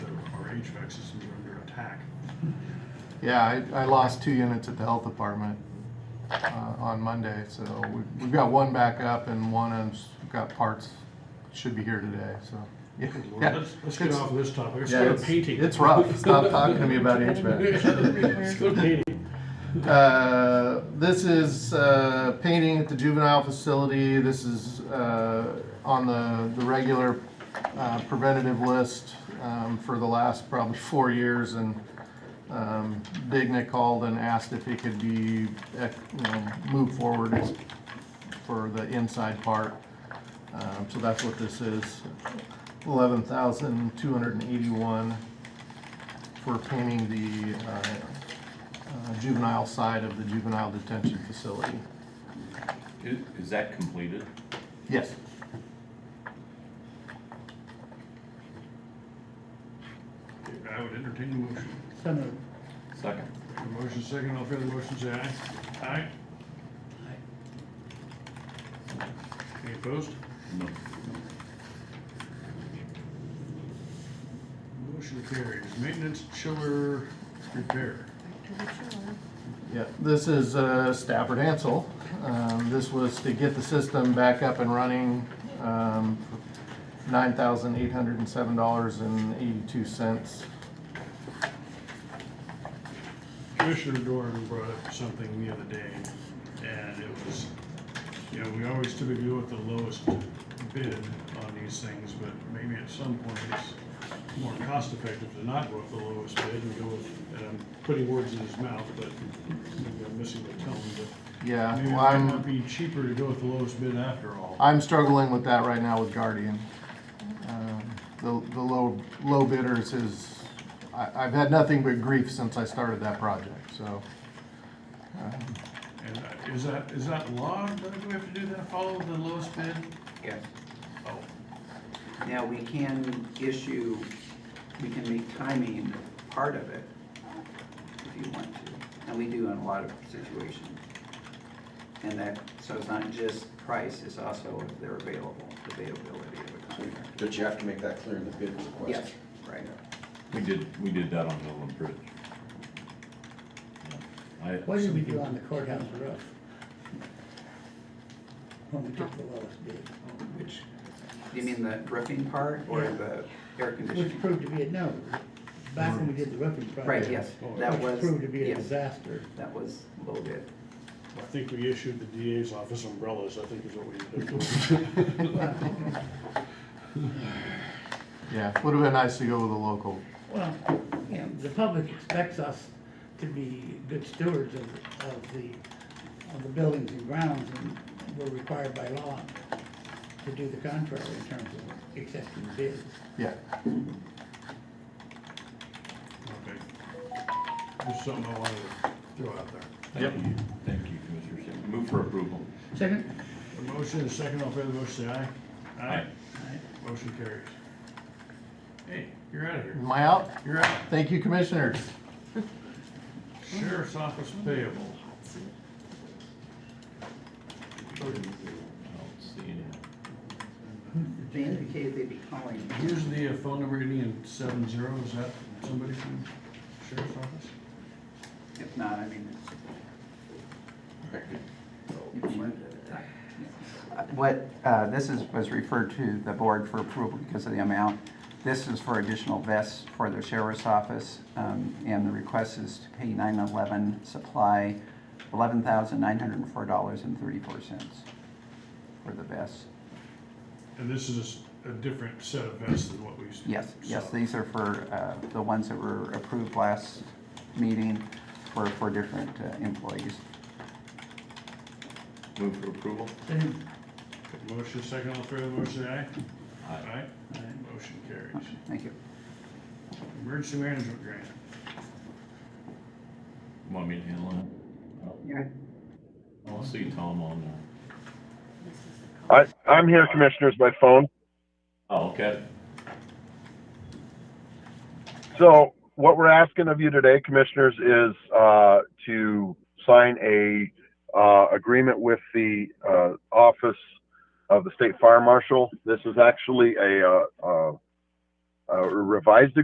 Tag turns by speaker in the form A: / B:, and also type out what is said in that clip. A: septic systems are under attack.
B: Yeah, I, I lost two units at the health department uh, on Monday, so we- we've got one back up and one has got parts, should be here today, so. yeah,
A: Good Lord,
B: yeah.
A: Let's, let's get
B: It's-
A: off of this topic, let's
B: yeah,
A: go to
B: it's-
A: painting.
B: It's rough, stop talking to me about HVAC.
A: Let's go to painting.
B: Uh, This is uh, painting at the juvenile facility. This is uh, on the, the regular uh, preventative list um, for the last probably four years. And um, Digna called and asked if it could be, eh, you know, moved forward as- for the inside part. Um, So that's what this is. Eleven thousand two hundred and eighty-one for painting the uh, uh, juvenile side of the juvenile detention facility.
C: Is, is that completed?
B: Yes.
A: I would entertain a motion.
D: So moved.
C: Second.
A: A motion second, all fair the motion, say aye. Aye? Any opposed?
C: No.
A: Motion carries. Maintenance chiller repair.
B: Yeah, this is uh, Stafford Hansel. Um, This was to get the system back up and running, um, $9,807.82.
A: Commissioner Doran brought up something the other day, and it was, you know, we always typically go with the lowest bid on these things, but maybe at some point it's more cost effective to not go with the lowest bid and go with, and I'm putting words in his mouth, but maybe I'm missing the tone, but
B: Yeah,
A: maybe it
B: well,
A: might not
B: I'm,
A: be cheaper to go with the lowest bid after all.
B: I'm struggling with that right now with Guardian. Um, The, the low, low bidders is, I, I've had nothing but grief since I started that project, so. um,
A: And uh, is that, is that law, do we have to do that, follow the lowest bid?
E: Yes.
A: Oh,
E: Now, we can issue, we can make timing part of it if you want to. And we do in a lot of situations. And that, so it's not just price, it's also if they're available, the availability of a contractor.
F: But you have to make that clear in the bid request.
E: Yes, right.
C: We did, we did that on Millen Bridge. I-
D: What did we do on the courthouse roof? When we took the lowest bid,
E: Which, do you mean the roofing part or the air
D: which
E: conditioning?
D: proved to be a no, back when we did the roofing project.
E: Right, yes, that was,
D: Which proved to be a
E: yes,
D: disaster.
E: that was low bid.
A: I think we issued the DA's office umbrellas, I think is what we did.
B: Yeah, would have been nice to go with a local.
D: Well, you know, the public expects us to be good stewards of, of the, of the buildings and grounds, and we're required by law to do the contrary in terms of accepting bids.
B: Yeah,
A: Okay. Just something I wanted to throw out there.
C: Thank you. Thank you, Commissioner Shea. Move for approval.
D: Second?
A: A motion and a second, all in favor of the motion, say aye.
C: Aye.
A: Motion carries. Hey, you're out of here.
B: am I out?
A: You're out.
B: Thank you, commissioners.
A: Sheriff's Office payable.
C: I don't see any.
E: They indicated they'd be calling.
A: Here's the uh, phone number ending in seven zero. Is that somebody from Sheriff's Office?
E: If not, I mean, it's What, uh, this is, was referred to the board for approval because of the amount. This is for additional vests for the sheriff's office, um, and the request is to pay 911 supply $11,904.34 for the vests.
A: And this is a different set of vests than what we. s-
E: Yes, yes,
A: saw.
E: these are for uh, the ones that were approved last meeting for, for different uh, employees.
C: Move for approval?
D: Second?
A: Motion second, all in favor of the motion, say aye.
C: Aye.
A: Motion carries.
E: Thank you.
A: Emergency management grant.
C: Want me to handle it? I don't see Tom on there.
G: I, I'm here, commissioners, by phone.
C: Oh, okay.
G: So what we're asking of you today, commissioners, is uh, to sign a uh, agreement with the uh, office of the state fire marshal. This is actually a, uh, uh, a revised